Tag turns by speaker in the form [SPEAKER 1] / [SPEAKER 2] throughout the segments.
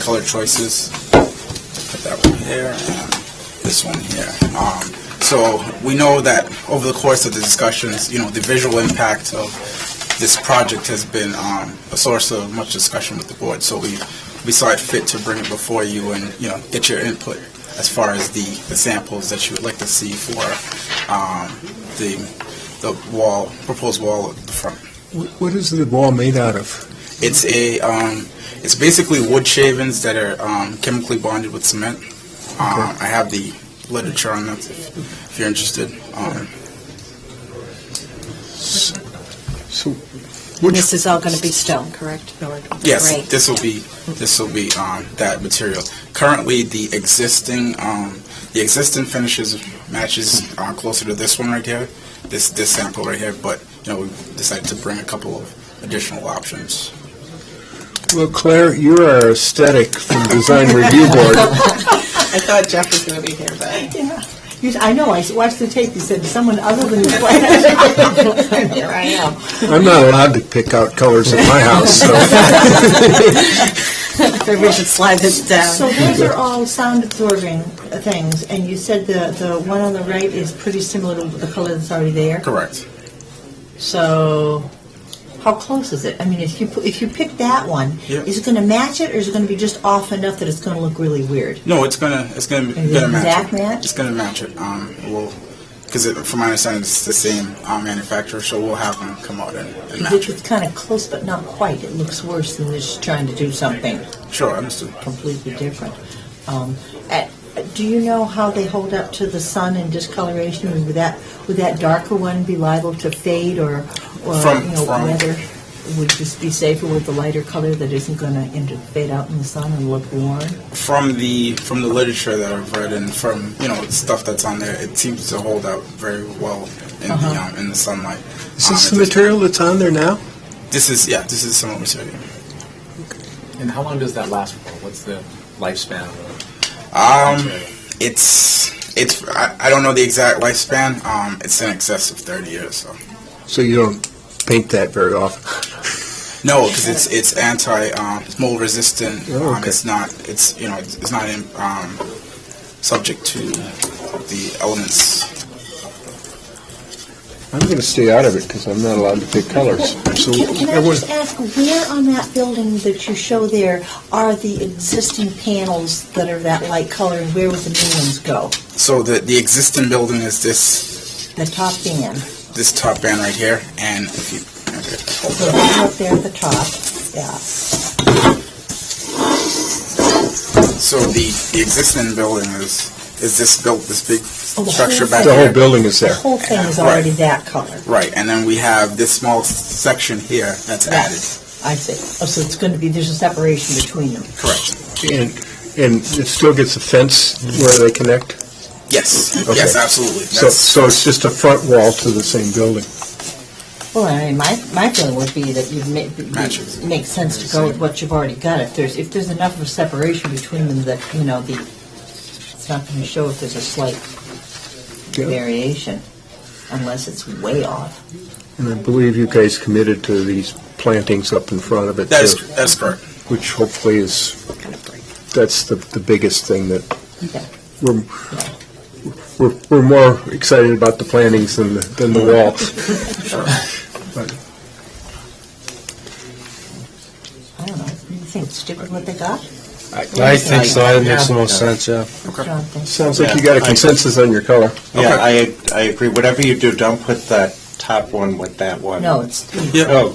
[SPEAKER 1] color choices. Put that one here, and this one here. Um, So we know that over the course of the discussions, you know, the visual impact of this project has been um, a source of much discussion with the board. So we, we saw it fit to bring it before you and, you know, get your input as far as the, the samples that you would like to see for um, the, the wall, proposed wall at the front.
[SPEAKER 2] Wh- What is the wall made out of?
[SPEAKER 1] It's a, um, it's basically wood shavings that are, um, chemically bonded with cement. Um, I have the literature on that if if you're interested. Um,
[SPEAKER 2] So, which,
[SPEAKER 3] This is all going to be stone, correct?
[SPEAKER 1] yes,
[SPEAKER 3] Great.
[SPEAKER 1] this will be, this will be, um, that material. Currently, the existing, um, the existing finishes matches, uh, closer to this one right here, this, this sample right here, but, you know, we decided to bring a couple of additional options.
[SPEAKER 2] well, Claire, you're our aesthetic from Design Review Board.
[SPEAKER 4] I thought Jeff was going to be here, but
[SPEAKER 5] Yeah, You- I know, I watched the tape, you said someone other than his wife.
[SPEAKER 4] here I am.
[SPEAKER 2] I'm not allowed to pick out colors at my house, so.
[SPEAKER 3] Maybe we should slide this
[SPEAKER 5] So
[SPEAKER 3] down.
[SPEAKER 5] those are all sound absorbing things, and you said the, the one on the right is pretty similar to the color that's already there?
[SPEAKER 1] Correct.
[SPEAKER 5] So, how close is it? I mean, if you, pu- if you pick that one,
[SPEAKER 1] Yeah.
[SPEAKER 5] is it gonna match it, or is it gonna be just off enough that it's gonna look really weird?
[SPEAKER 1] No, it's gonna, it's gonna, it's
[SPEAKER 5] Is it
[SPEAKER 1] gonna match
[SPEAKER 5] exact
[SPEAKER 1] it.
[SPEAKER 5] match?
[SPEAKER 1] It's gonna match it. Um, we'll, because it, from my understanding, it's the same uh, manufacturer, so we'll have them come out and, and match
[SPEAKER 5] Because
[SPEAKER 1] it.
[SPEAKER 5] it's kinda close, but not quite, it looks worse than just trying to do something
[SPEAKER 1] Sure, understood.
[SPEAKER 5] completely different. Um, at- Do you know how they hold up to the sun and discoloration? Would that, would that darker one be liable to fade or, or,
[SPEAKER 1] From-
[SPEAKER 5] you know,
[SPEAKER 1] from-
[SPEAKER 5] whether it would just be safer with the lighter color that isn't going to inter fade out in the sun and look worn?
[SPEAKER 1] From the from the literature that I've read and from you know stuff that's on there, it seems to hold out very well in the
[SPEAKER 5] Uh-huh.
[SPEAKER 1] um, in the sunlight.
[SPEAKER 2] Is
[SPEAKER 1] Um, it
[SPEAKER 2] this the
[SPEAKER 1] does-
[SPEAKER 2] material that's on there now?
[SPEAKER 1] This is yeah. This is similar material.
[SPEAKER 6] And how long does that last for? What's the lifespan? of
[SPEAKER 1] Um,
[SPEAKER 6] material?
[SPEAKER 1] it's it's I, I don't know the exact lifespan. Um, it's in excess of thirty years. So.
[SPEAKER 2] So you don't paint that very often.
[SPEAKER 1] No, because it's it's anti um, it's mold resistant.
[SPEAKER 2] Oh,
[SPEAKER 1] um,
[SPEAKER 2] okay.
[SPEAKER 1] it's not it's you know it's, it's not in, um, subject to the elements.
[SPEAKER 2] I'm going to stay out of it because I'm not allowed to pick colors. So
[SPEAKER 5] Can can
[SPEAKER 2] I
[SPEAKER 5] I
[SPEAKER 2] was-
[SPEAKER 5] just ask, where on that building that you show there are the existing panels that are that light color and where would the new ones go?
[SPEAKER 1] So the the existing building is this
[SPEAKER 5] The top band,
[SPEAKER 1] this top band right here, and if you okay, hold
[SPEAKER 5] so
[SPEAKER 1] it up.
[SPEAKER 5] right up there at the top, yeah.
[SPEAKER 1] so the the existing building is is this built this big
[SPEAKER 5] Oh, the
[SPEAKER 1] structure
[SPEAKER 5] whole
[SPEAKER 1] back
[SPEAKER 2] The
[SPEAKER 1] here.
[SPEAKER 2] whole building is
[SPEAKER 5] The
[SPEAKER 2] there.
[SPEAKER 5] whole thing is
[SPEAKER 1] Right.
[SPEAKER 5] already that color.
[SPEAKER 1] Right, and then we have this small section here that's added.
[SPEAKER 5] I see. Oh, so it's going to be, there's a separation between them.
[SPEAKER 1] Correct.
[SPEAKER 2] And, and it still gets a fence where they connect?
[SPEAKER 1] Yes.
[SPEAKER 2] Okay.
[SPEAKER 1] Yes, absolutely.
[SPEAKER 2] So,
[SPEAKER 1] That's-
[SPEAKER 2] so it's just a front wall to the same building?
[SPEAKER 5] Well, I mean, my, my feeling would be that you'd make,
[SPEAKER 1] Matches.
[SPEAKER 5] it makes sense to go with what you've already got. If there's, if there's enough of a separation between them that, you know, the, it's not going to show if there's a slight
[SPEAKER 2] Yeah.
[SPEAKER 5] variation, unless it's way off.
[SPEAKER 2] And I believe you guys committed to these plantings up in front of it,
[SPEAKER 1] that is
[SPEAKER 2] too,
[SPEAKER 1] that is correct.
[SPEAKER 2] which hopefully is, that's the, the biggest thing that,
[SPEAKER 5] Okay.
[SPEAKER 2] we're, we're, we're more excited about the plantings than, the- than the wall.
[SPEAKER 5] I don't know. You think it's stupid what they got?
[SPEAKER 7] I think so, that makes the most sense, yeah.
[SPEAKER 5] John thinks.
[SPEAKER 2] Sounds like you got a consensus on your color.
[SPEAKER 7] Yeah, I, I agree, whatever you do, don't put that top one with that one.
[SPEAKER 5] No, it's,
[SPEAKER 7] Oh,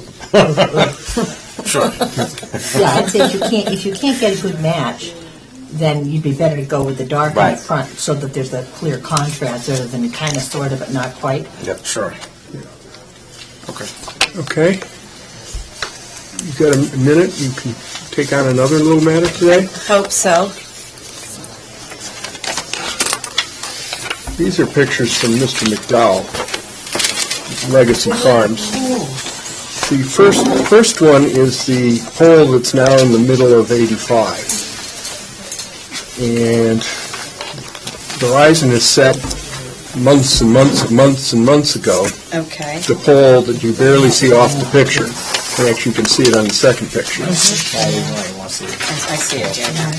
[SPEAKER 1] Sure.
[SPEAKER 5] yeah, I'd say if you can't, if you can't get a good match, then you'd be better to go with the dark in
[SPEAKER 7] Right.
[SPEAKER 5] front, so that there's a clear contrast, rather than kind of, sort of, but not quite.
[SPEAKER 1] Sure. Okay.
[SPEAKER 2] Okay? You got a minute, you can take on another little matter today?
[SPEAKER 3] Hope so.
[SPEAKER 2] These are pictures from Mr. McDowell, Legacy Farms. The first, first one is the pole that's now in the middle of 85. And Verizon has set months and months and months and months ago,
[SPEAKER 3] Okay.
[SPEAKER 2] the pole that you barely see off the picture.
[SPEAKER 8] And Actually, you can see it on the second picture.
[SPEAKER 2] Why, why, why, why, see.
[SPEAKER 3] I I see it, yeah.